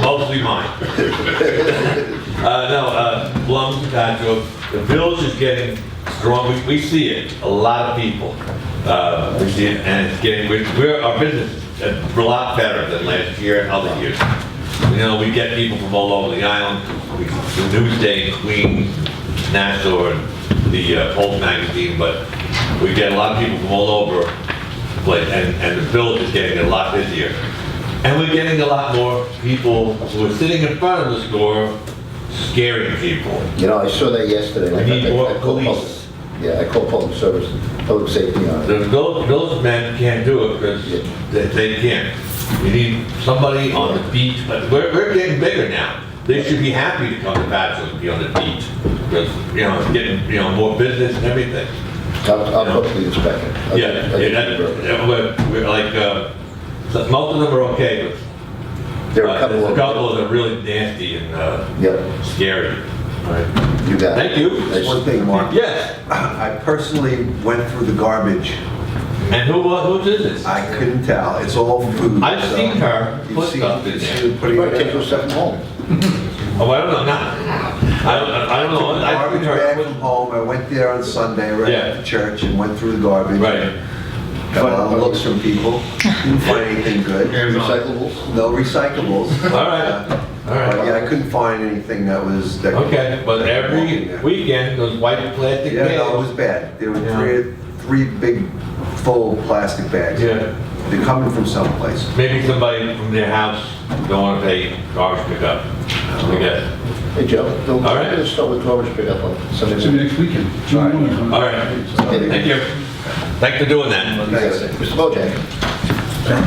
be mine. Uh, no, uh, Blum, Conjo, the village is getting strong, we, we see it, a lot of people. Uh, we see it, and it's getting, we're, we're, our business is a lot better than last year and other years. You know, we get people from all over the island, we, the Newsday, Queens, Nassau, and the uh, Pulse magazine, but we get a lot of people from all over, but, and, and the village is getting a lot busier. And we're getting a lot more people who are sitting in front of the store scaring people. You know, I saw that yesterday. We I- need I- I more called public- police. Yeah, I called public service, public safety on it. The village, village men can't do it because they, they can't. You need somebody on the beach, but we're, we're getting bigger now. They should be happy to come to Bachelor's and be on the beach, because, you know, it's getting, you know, more business and everything. I'll, I'll talk to the inspector. I'll- Yeah, I'll- yeah, that- yeah, we're, we're like, uh, so most of them are okay, but There are a Uh, couple There's a of. couple that are really nasty and uh, Yep, scary. you got it. Thank you. One thing, Mark. Yes, I personally went through the garbage. and who, wa- who did this? I couldn't tell. It's all food. I've so- seen her You've put seen- stuff in you've there. seen her You putting might take it in. those stuff home. Oh, I don't know, not, I don't, I don't know. I've Garbage seen her bag put- from home. I went there on Sunday, right Yeah. after church, and went through the garbage. Right, Got a lot of looks from people. Didn't find anything good. Recyclables? No recyclables. all right, all But right. yeah, I couldn't find anything that was. that- Okay, but every weekend, those white plastic Yeah, no, it was bags. bad. There were Yeah. three, three big full plastic bags. Yeah. They're coming from someplace. Maybe somebody from their house don't want to pay garbage pickup, I guess. Hey, Joe, don't, All right. let's start with garbage pickup on Sunday. See you next weekend. June morning. All right, thank you. Thanks for doing that. You got it. Mr. Bojack?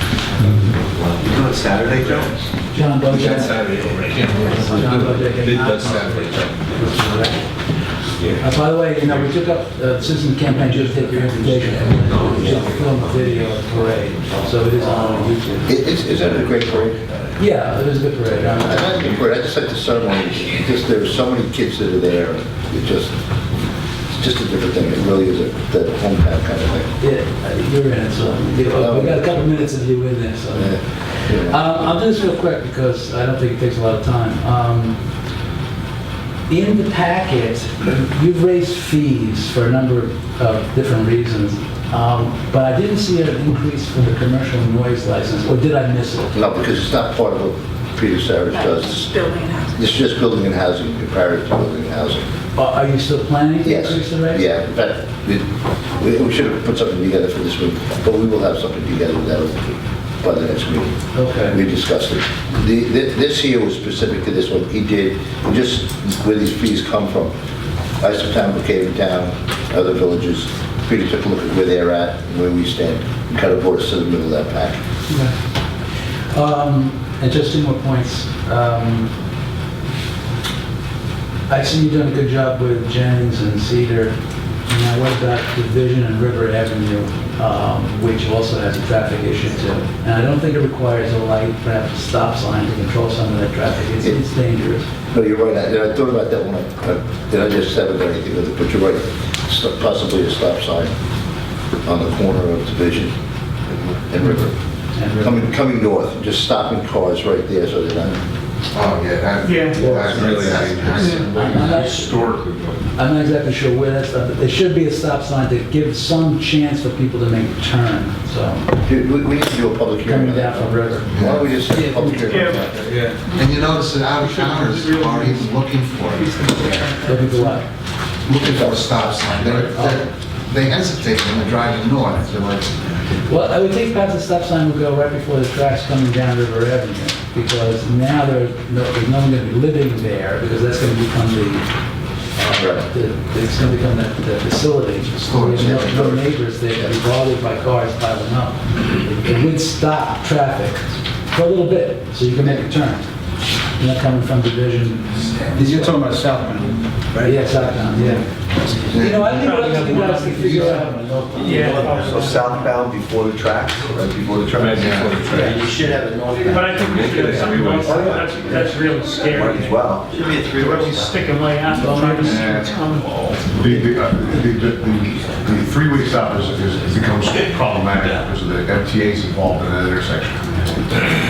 You doing Saturday, Joe? John Bojack. John Bojack. and I- Uh, By the way, you know, we took up, uh, Citizen Campaign just did your invitation, uh, we just filmed a video of the parade, so it is on YouTube. I- Is, is that a great parade? Yeah, it is a good parade. I I'm- uh, like the parade, I just like the ceremony, because there are so many kids that are there, it just, it's just a different thing, it really is a, that hometown kind of thing. Yeah, uh, you're in it, so, you know, we got a couple minutes of you in there, so. Yeah, Um, yeah. I'll do this real quick because I don't think it takes a lot of time. Um, In the packet, you've raised fees for a number of different reasons, um, but I didn't see an increase for the commercial noise license, or did I miss it? No, because it's not part of what Peter Savage does. Building and housing. It's just building and housing, comparative to building and housing. Are are you still planning to Yes, increase the rate? yeah, in fact, we, we- we should have put something together for this week, but we will have something together that'll, be by the next meeting. Okay. We discussed it. The, thi- this here was specific to this one, he did, just where these fees come from. Isopotamol came down, other villages, Peter took a look at where they're at, and where we stand, and kind of brought us to the middle of that pack. Yeah. Um, And just two more points. Um, I see you've done a good job with Jennings and Cedar. Now, what about Division and River Avenue, um, which also has a traffic issue too? And I don't think it requires a light, perhaps a stop sign to control some of that traffic. It's- It's dangerous. No, you're right, I, I thought about that when I, I- did I just have it or anything with it, but you're right, Sto- possibly a stop sign on the corner of Division and River. And River- Coming, coming north, just stopping cars right there, so they're not, Oh, yeah, that, Yeah. that's really dangerous. I'm not- Historically, I'm not exactly sure where that's, but there should be a stop sign to give some chance for people to make a turn, so. Dude, we, we need to do a public hearing. Coming down from River. Why don't we just have a public hearing? on that? and you notice that out of towners are even looking for it, Looking for what? looking for a stop sign. They're, they're, they hesitate when they're driving north, they're like, Well, I would think perhaps the stop sign would go right before the tracks coming down River Avenue, because now there, no, there's no one gonna be living there, because that's gonna become the, uh, Right. the- it's gonna become the, the facility. Storage, There's no- No neighbors there, be bothered by cars piling up. It it would stop traffic for a little bit, so you can make a turn. You're Not coming from Division. You're talking about southbound. Yeah, southbound, yeah. You know, I think what else you guys can figure out. Yeah. So southbound before the tracks, right before the tracks? You should have a north. But I think we should have something else, that's, that's really Might as scary. well. Where we stick them way out, trying to see what's coming. The, the, uh, the, the, the- the three-way stop is, is becomes problematic because of the MTA's involved in that intersection.